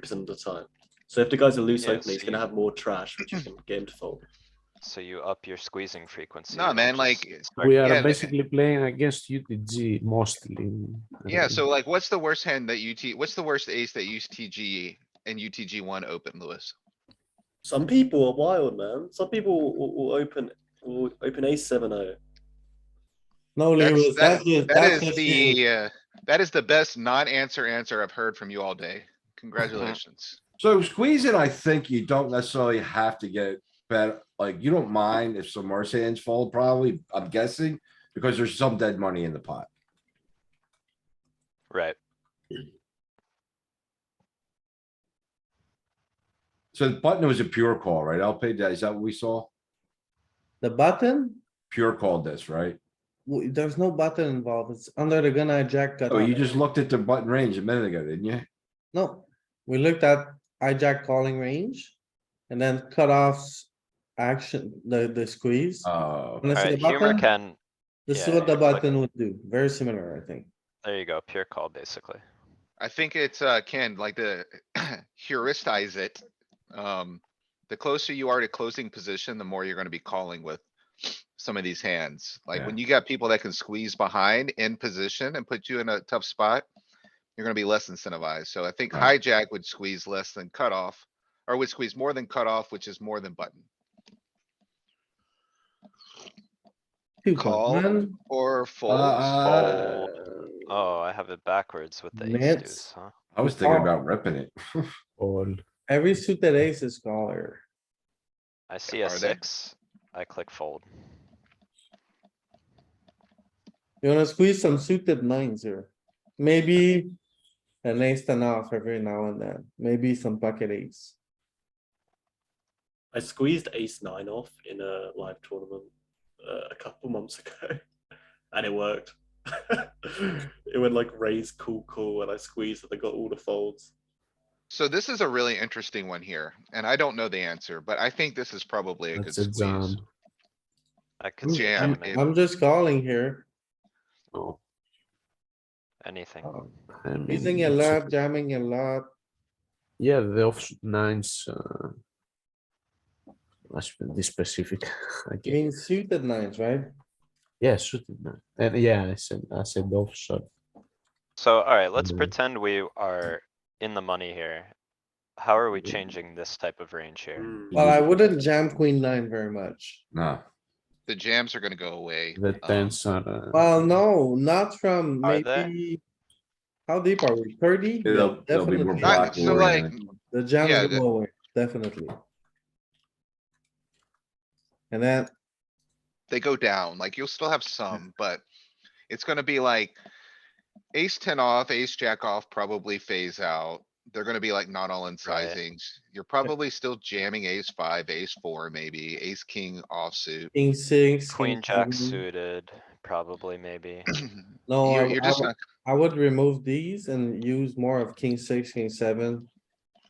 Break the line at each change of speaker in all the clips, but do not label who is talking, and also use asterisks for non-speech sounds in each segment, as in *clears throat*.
percent of the time. So if the guy's a loose
Yeah,
opener, he's
so
gonna
you-
have more trash, which you can get him to fold.
So you up your squeezing frequency.
Nah,
and
man,
just
like,
start-
We uh, are
yeah,
basically playing against UTG mostly.
Yeah,
*laughs* Uh,
so like, what's the worst hand that UT, what's the worst ace that UTG and UTG one open, Lewis?
*clears throat* Some people are wild, man. Some people will, will open will open ace seven oh. o.
No,
That's-
Lewis,
That
that's the,
that
that's
is the, uh, that is the best non-answer answer I've heard from you all day. Congratulations.
So squeezing, I think you don't necessarily have to get bet, like, you don't mind if some worse hands fold, probably, I'm guessing. Because there's some dead money in the pot.
Right,
So the button was a pure call, right? LP, is that what we saw?
The button,
Pure called this, right?
W- there's no button involved. It's under the gun I jack. cut
Oh, you
off.
just looked at the button range a minute ago, didn't you?
No, we looked at hijack calling range and then cutoffs action, the, the squeeze.
Oh,
Wanna see
alright,
the
humor
button?
can,
This is
yeah,
what the
you click.
button would do. Very similar, I think.
there you go, pure call, basically.
I think it's, uh, Ken, like the *clears throat* heuristize it. Um, the closer you are to closing position, the more you're gonna be calling with some of these hands. Like
Yeah.
when you got people that can squeeze behind in position and put you in a tough spot, you're gonna be less incentivized. So I think
Right.
hijack would squeeze less than cutoff, or would squeeze more than cutoff, which is more than button.
Two
Call.
button,
Or folds.
uh,
Oh, I have it backwards with the ace
Nets.
deuce, huh?
I was thinking about ripping it.
All.
Every suited ace is caller.
I see a
are they?
six, I click fold.
You wanna squeeze some suited nines here. Maybe an ace ten off every now and then, maybe some pocket ace.
I squeezed ace nine off in a live tournament uh, a couple months *laughs* ago, and it worked. *laughs* it went like raise cool cool, and I squeezed, and I got all the folds.
So this is a really interesting one here, and I don't know the answer, but I think this is probably a good
That's a
squeeze.
jam.
I could
Ooh,
see
I'm-
him
I'm-
in
Hmm, I'm just calling here,
Oh,
anything.
Um,
I mean,
using a
mm,
it's-
lot, jamming a lot.
Yeah, the off nines. Uh, must be specific. *laughs* I
You
guess.
mean suited nines, right?
Yeah, shooting nine. And yeah, I said I said offshot.
So, alright, let's
Mhm.
pretend we are in the money here. How are we
Mhm.
changing this type of range here?
Mm.
Well, I wouldn't jam queen nine very much.
No,
The jams are gonna go away.
The
um,
tens are. Uh,
Well, no, not from
Are they?
maybe. How deep are we? Thirty?
They'll-
Yeah,
they'll be more
definitely.
black
Not- So
or
like,
The
Yeah,
jams
the-
go away, definitely. And then
they go down, like you'll still
*laughs*
have some, but it's gonna be like. Ace ten off, ace jack off probably phase out. They're gonna be like not all in
Right.
sizings. You're probably still jamming ace five, ace four, maybe ace king offsuit.
king six.
Queen
king
jack
seven.
suited, probably maybe. Oh,
No,
You're,
I-
you're
I
just
would-
not,
I would remove these and use more of king six, king seven.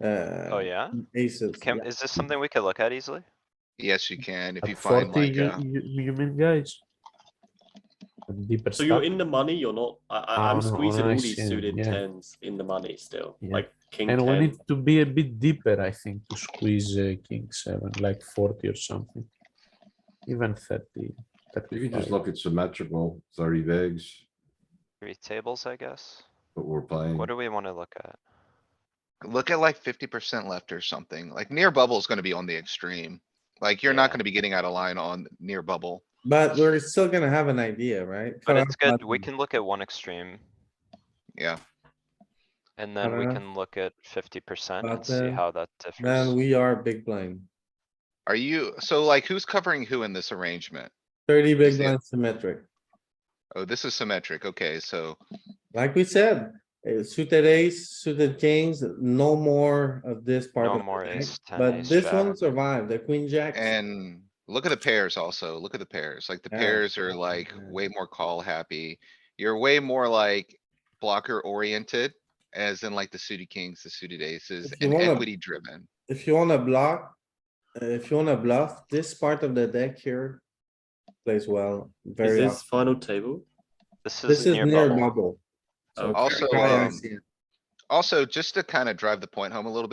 uh,
Oh, yeah?
Aces.
Can,
yeah.
is this something we could look at easily?
yes, you can, if
at
you find
40,
like,
you,
uh,
you, you mean guys? And Deeper
So you're
stuff.
in the money. You're not. I,
Ah,
I, I'm
on- on
squeezing all
ice,
these
yeah,
suited
yeah.
tens in the money still,
Yeah.
like king
And we
ten.
need to be a bit deeper, I think, to squeeze uh, king seven, like forty or something. Even thirty.
you could
35.
just look at symmetrical, thirty bigs,
Three tables, I guess?
but we're playing.
What do we wanna look at?
look at like fifty percent left or something, like near bubble is gonna be on the extreme. Like, you're not
Yeah.
gonna be getting out of line on near bubble.
But we're still gonna have an idea, right?
But it's
Cutoff
good, we
button.
can look at one extreme
Yeah,
and then we
Uh,
can look at fifty percent and see
button,
how that differs.
Man, we are big blind.
are you, so like who's covering who in this arrangement?
Thirty big
Yeah.
blind symmetric.
Oh, this is symmetric, okay, so,
Like we said, eh, suited ace, suited kings, no more of this part.
No
of the
more
deck,
ace, ten,
But
ace
this
jack.
one survived, the queen jack.
and look at the pairs also, look at the pairs, like the
Yeah.
pairs are like
Yeah.
way more call happy. You're way more like blocker oriented, as in like the suited kings, the suited aces,
If you
and
wanna-
equity driven.
If you wanna block, eh, if you wanna bluff, this part of the deck here plays well,
Is
very,
this
often.
final table?
This
this
is near
is near
bubble.
bubble.
Okay.
Also,
Yeah, I
um,
see it.
Also, just to kind of drive the point home a little bit.